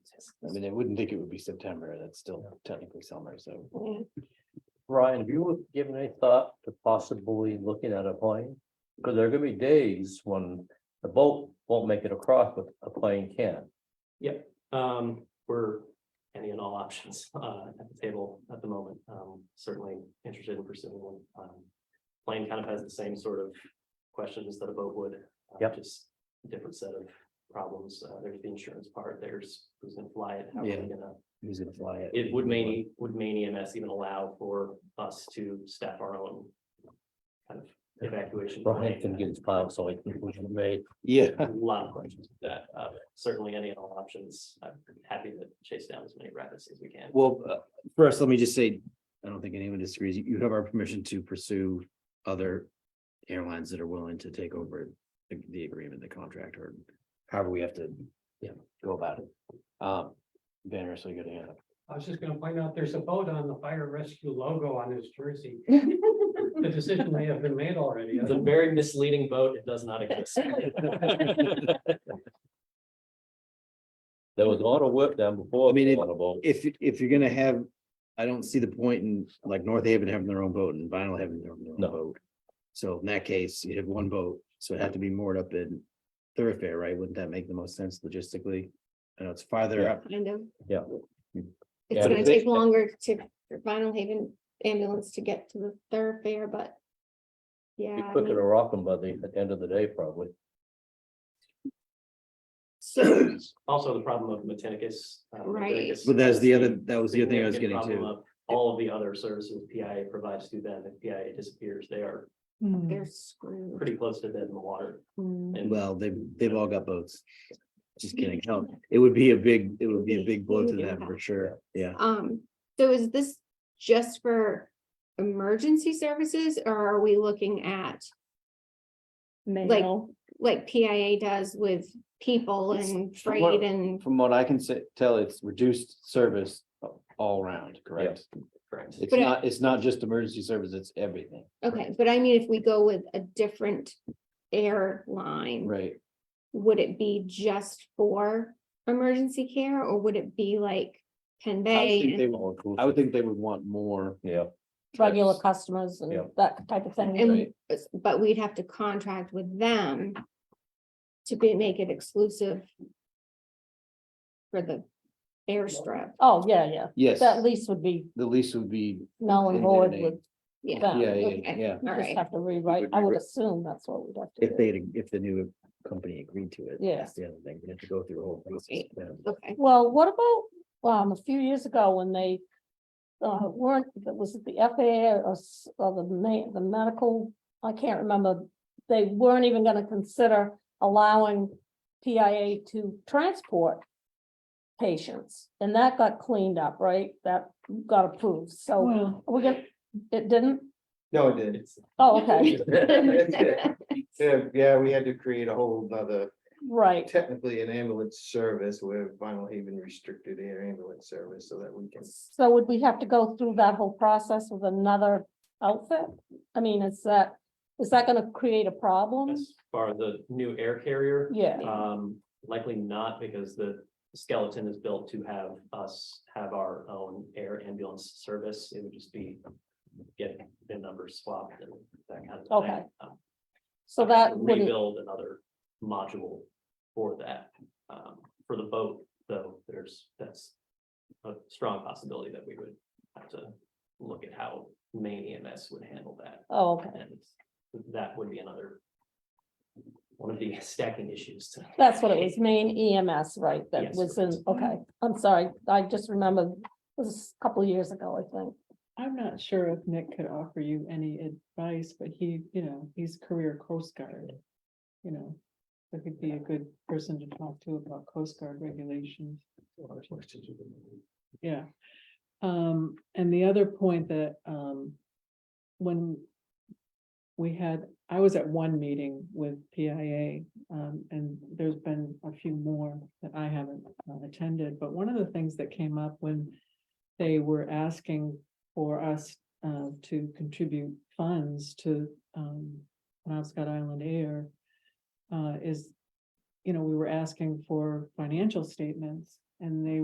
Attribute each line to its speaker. Speaker 1: yes. I mean, I wouldn't think it would be September. That's still technically summer, so. Ryan, have you given any thought to possibly looking at a plane? Because there are gonna be days when the boat won't make it across, but a plane can.
Speaker 2: Um, we're any and all options uh at the table at the moment. Um, certainly interested in pursuing one. Um, Plane kind of has the same sort of questions that a boat would. uh,
Speaker 3: Yep.
Speaker 2: Just different set of problems. Uh, there's the insurance part, there's who's gonna fly it, how are
Speaker 1: Yeah.
Speaker 2: they gonna
Speaker 1: Who's gonna fly it?
Speaker 2: it would Maine, would Maine EMS even allow for us to staff our own? Kind of evacuation.
Speaker 3: Brian
Speaker 2: plan?
Speaker 3: can get his pile, so I think we can make.
Speaker 1: Yeah,
Speaker 2: A lot of questions with that, uh, certainly any and all options, I'm happy to chase down as many rapids as we can.
Speaker 1: well, uh, first, let me just say, I don't think anyone disagrees. You have our permission to pursue other airlines that are willing to take over the- the agreement, the contract, or however we have to, yeah, go about it. Um, Banner, so you got a hand up.
Speaker 4: I was just gonna point out, there's a boat on the fire rescue logo on his jersey. The decision may have been made already.
Speaker 2: It's a very misleading boat, it does not exist.
Speaker 3: There was a lot of work done before.
Speaker 1: I mean, it-
Speaker 3: on the boat.
Speaker 1: if, you- if you're gonna have, I don't see the point in like North Haven having their own boat and Vinyl having their own
Speaker 3: No.
Speaker 1: boat. So in that case, you have one boat, so it had to be moored up in thoroughfare, right? Wouldn't that make the most sense logistically? I know it's farther up.
Speaker 5: Kind of.
Speaker 3: Yeah.
Speaker 5: It's
Speaker 3: Yeah,
Speaker 5: gonna
Speaker 3: but
Speaker 5: take
Speaker 3: they-
Speaker 5: longer to, for Vinyl Haven ambulance to get to the thoroughfare, but.
Speaker 3: Be
Speaker 5: Yeah. I
Speaker 3: quicker
Speaker 5: mean,
Speaker 3: to rock them by the at the end of the day, probably.
Speaker 5: So,
Speaker 2: Also, the problem of Matinicus. uh,
Speaker 5: Right.
Speaker 2: Matinicus
Speaker 1: But that's the other, that was the other thing I was
Speaker 2: significant
Speaker 1: getting to.
Speaker 2: problem of All of the other services PIA provides to them, if PIA disappears, they are
Speaker 5: they're screwed.
Speaker 2: pretty close to dead in the water.
Speaker 5: Mm.
Speaker 2: And
Speaker 1: Well, they, they've all got boats. Just kidding. No, It would be a big, it would be a big blow to them for sure. Yeah.
Speaker 5: Um, so is this just for emergency services or are we looking at like, like PIA does with people
Speaker 1: It's
Speaker 5: and
Speaker 1: for what-
Speaker 5: freight and?
Speaker 1: From what I can say, tell, it's reduced service all around,
Speaker 3: correct?
Speaker 2: correct.
Speaker 1: It's
Speaker 5: But I- not-
Speaker 1: it's not just emergency service, it's everything.
Speaker 5: Okay, but I mean, if we go with a different airline.
Speaker 1: Right.
Speaker 5: would it be just for emergency care or would it be like Penn
Speaker 1: I would
Speaker 5: Bay?
Speaker 1: think
Speaker 5: and-
Speaker 1: they would- I would think they would want more.
Speaker 3: Yeah,
Speaker 6: regular customers
Speaker 3: Yeah.
Speaker 6: and that type of thing.
Speaker 5: And, but we'd have to contract with them to be, make it exclusive for the airstrip.
Speaker 6: Oh, yeah, yeah.
Speaker 1: Yes,
Speaker 6: That lease would be
Speaker 1: the lease would be,
Speaker 6: null
Speaker 1: In
Speaker 6: and
Speaker 1: their
Speaker 6: void
Speaker 1: name.
Speaker 6: with
Speaker 5: Yeah,
Speaker 6: that.
Speaker 1: yeah, yeah,
Speaker 6: Okay.
Speaker 1: yeah.
Speaker 5: all
Speaker 6: Just
Speaker 5: right.
Speaker 6: have to rewrite. I would assume that's what we'd have to
Speaker 1: If
Speaker 6: do.
Speaker 1: they, if the new company agreed to it.
Speaker 6: Yeah.
Speaker 1: That's the other thing. We have to go through a whole process.
Speaker 5: Right. Okay,
Speaker 6: Well, what about, um, a few years ago when they uh, weren't, that was it the FAA or, s- or the ma- the medical, I can't remember. They weren't even gonna consider allowing PIA to transport patients, and that got cleaned up, right? That got approved, so
Speaker 2: Well.
Speaker 6: we get, it didn't?
Speaker 7: No, it did.
Speaker 6: Oh, okay,
Speaker 7: Yeah, yeah, we had to create a whole nother,
Speaker 6: right.
Speaker 7: technically an ambulance service where Vinyl Haven restricted air ambulance service so that we can.
Speaker 6: So would we have to go through that whole process with another outfit? I mean, is that, is that gonna create a problem?
Speaker 2: As far as the new air carrier.
Speaker 6: Yeah,
Speaker 2: Um, likely not because the skeleton is built to have us have our own air ambulance service. It would just be get the numbers swapped and that kind of thing.
Speaker 6: Okay.
Speaker 2: Um,
Speaker 6: so
Speaker 2: I'd have
Speaker 6: that
Speaker 2: to
Speaker 6: wouldn't,
Speaker 2: Rebuild another module for that. Um, for the boat, though, there's, that's a strong possibility that we would have to look at how main EMS would handle that.
Speaker 6: oh, okay,
Speaker 2: And that would be another one of the stacking issues to
Speaker 6: that's what it was, main EMS, right, that
Speaker 2: Yes,
Speaker 6: was in,
Speaker 2: correct.
Speaker 6: okay, I'm sorry, I just remembered, it was a couple of years ago, I think.
Speaker 8: I'm not sure if Nick could offer you any advice, but he, you know, he's career Coast Guard. You know, so he'd be a good person to talk to about Coast Guard regulations. Yeah. Um, and the other point that, um, when we had, I was at one meeting with PIA, um, and there's been a few more that I haven't uh, attended, but one of the things that came up when they were asking for us, uh, to contribute funds to, um, Penobscot Island Air, uh, is, you know, we were asking for financial statements, and they